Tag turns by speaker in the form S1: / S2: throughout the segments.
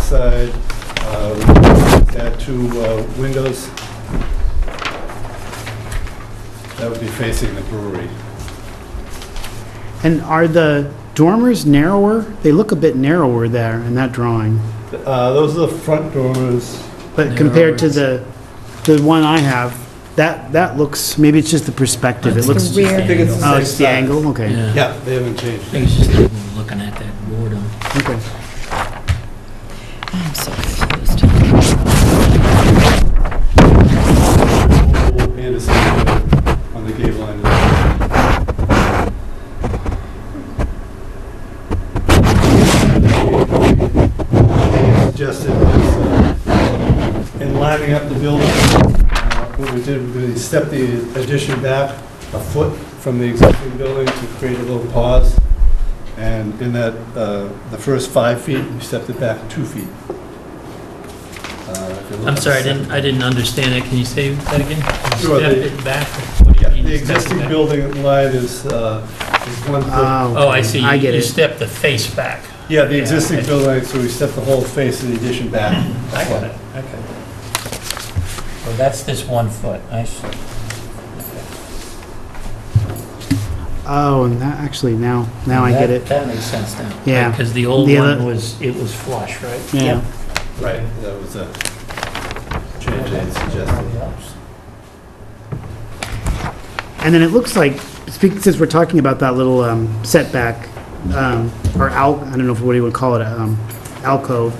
S1: side, uh, that two uh, windows that would be facing the brewery.
S2: And are the dormers narrower? They look a bit narrower there in that drawing.
S1: Uh, Those are the front doors.
S2: But compared to the, the one I have, that, that looks, maybe it's just the perspective. It
S3: That's the
S2: looks,
S3: rear.
S1: I think it's
S2: oh,
S1: the
S2: it's
S1: same
S2: the
S1: size.
S2: angle, okay,
S3: Yeah.
S1: Yeah, they haven't changed.
S3: I think it's just people looking at that boredom.
S2: okay.
S4: I'm so confused.
S1: Anderson on the gable end. Suggested is, uh, in lining up the building, uh, what we did, we stepped the addition back a foot from the existing building to create a little pause. And in that, uh, the first five feet, we stepped it back two feet. Uh, if you look
S3: I'm
S1: at the
S3: sorry, I
S1: second-
S3: didn't, I didn't understand that. Can you say that again?
S1: Sure,
S3: Step
S1: the-
S3: it back? What do you
S1: Yeah,
S3: mean
S1: the
S3: step it
S1: existing
S3: back?
S1: building line is, uh, is one foot.
S2: Ah,
S3: Oh, I
S2: okay.
S3: see.
S2: I get
S3: You
S2: it.
S3: step the face back.
S1: Yeah, the
S3: yeah,
S1: existing
S3: okay.
S1: building, line, so we step the whole face of the addition back.
S3: I got it, okay. Well, that's this one foot, I see.
S2: Oh, and that, actually, now, now I get
S3: That-
S2: it.
S3: That makes sense now.
S2: Yeah.
S3: Because the old
S2: The
S3: one
S2: other-
S3: was, it was flush, right?
S2: Yeah.
S1: Right, that was a change I had suggested.
S2: And then it looks like, speak- since we're talking about that little um, setback, um, or al, I don't know if what you would call it, um, alcove,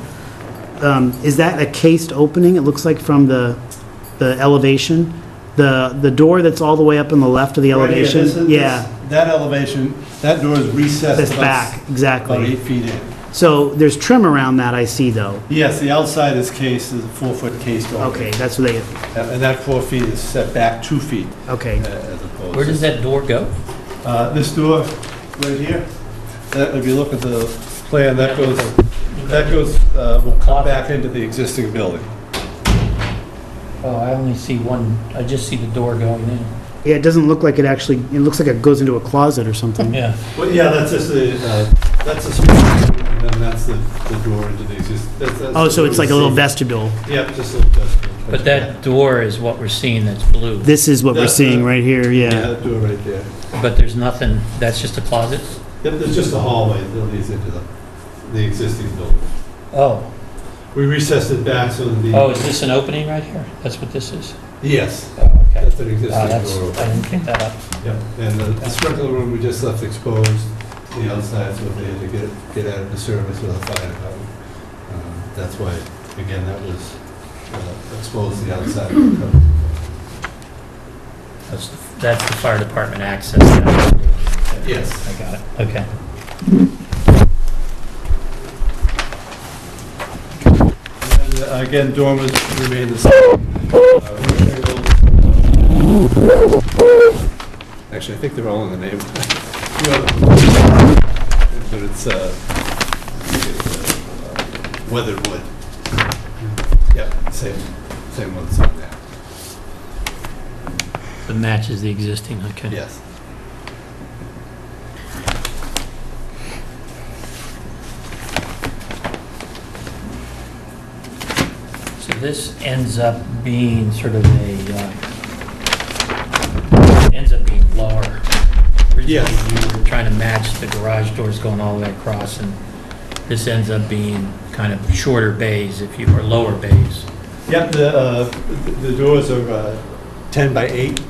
S2: um, is that a cased opening? It looks like from the, the elevation? The, the door that's all the way up on the left of the
S1: Right here, this is-
S2: elevation?
S1: this-
S2: Yeah,
S1: That elevation, that door is recessed
S2: that's
S1: about
S2: back,
S1: s- about
S2: exactly.
S1: eight feet in.
S2: So there's trim around that, I see, though.
S1: Yes, the outside is cased, is a four-foot cased door.
S2: Okay, that's what they,
S1: And and that four feet is set back two feet
S2: okay.
S1: uh, as opposed.
S3: Where
S1: to-
S3: does that door go?
S1: Uh, This door, right here, that, if you look at the plan, that goes, that goes, uh, will come back into the existing building.
S3: Oh, I only see one, I just see the door going in.
S2: Yeah, it doesn't look like it actually, it looks like it goes into a closet or something.
S3: Yeah.
S1: Well, yeah, that's just the, uh, that's the space, and then that's the, the door into the existing.
S2: Oh, so it's like a little vestibule.
S1: Yep, just a little vestibule.
S3: But that door is what we're seeing that's blue,
S2: This is what we're
S1: That's
S2: seeing
S1: the-
S2: right here,
S1: Yeah,
S2: yeah.
S1: that door right there.
S3: but there's nothing, that's just a closet?
S1: Yep, there's just a hallway that leads into the, the existing building.
S3: Oh,
S1: We recessed it back so that the.
S3: oh, is this an opening right here? That's what this is?
S1: Yes,
S3: Oh, okay.
S1: that's an
S3: Wow,
S1: existing
S3: that's,
S1: door.
S3: I didn't pick that up.
S1: Yep, and the- the sprinkler room we just left exposed, the outside, so they had to get, get out of the service with a fire hydrant. Um, That's why, again, that was uh, exposed the outside.
S3: That's, the- that's the fire department access. now.
S1: Yes.
S3: I got it, okay.
S1: And then, uh, Again, dormers remain the same. Uh, rectangles. Actually, I think they're all in the name. Yeah. But it's, uh, it's, uh, weathered wood. Yep, same, same ones on there,
S3: That matches the existing, okay.
S1: yes.
S3: So this ends up being sort of a, uh, ends up being lower.
S1: Yes.
S3: Originally, You were trying to match the garage doors going all the way across, and this ends up being kind of shorter bays, if you, or lower bays.
S1: Yep, the, uh, the doors are uh, 10 by 8.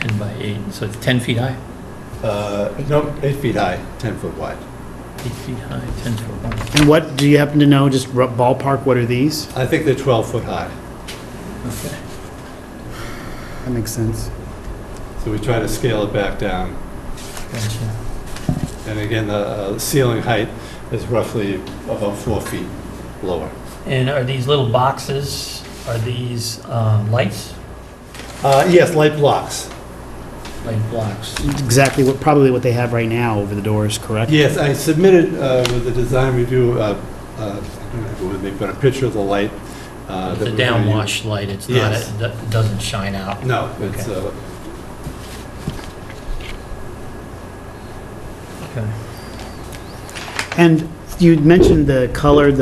S3: 10 by 8, so it's 10 feet high?
S1: Uh, No, 8 feet high, 10 foot wide.
S3: 8 feet high, 10 foot wide.
S2: And what, do you happen to know, just r- ballpark, what are these?
S1: I think they're 12 foot high.
S3: Okay.
S2: That makes sense.
S1: So we try to scale it back down.
S3: Gotcha.
S1: And again, the uh, ceiling height is roughly about four feet lower.
S3: And are these little boxes, are these uh, lights?
S1: Uh, Yes, light blocks.
S3: Light
S1: Uh,
S3: blocks.
S2: Exactly what, probably what they have right now over the doors, correct?
S1: Yes, I submitted uh, with the design review, uh, uh, I don't have it with me, but a picture of the light. uh,
S3: It's
S1: that
S3: a
S1: we're gonna use.
S3: downwash light, it's not,
S1: Yes.
S3: it do- it doesn't shine out.
S1: No, it's, uh,
S3: Okay.
S2: And you mentioned the color,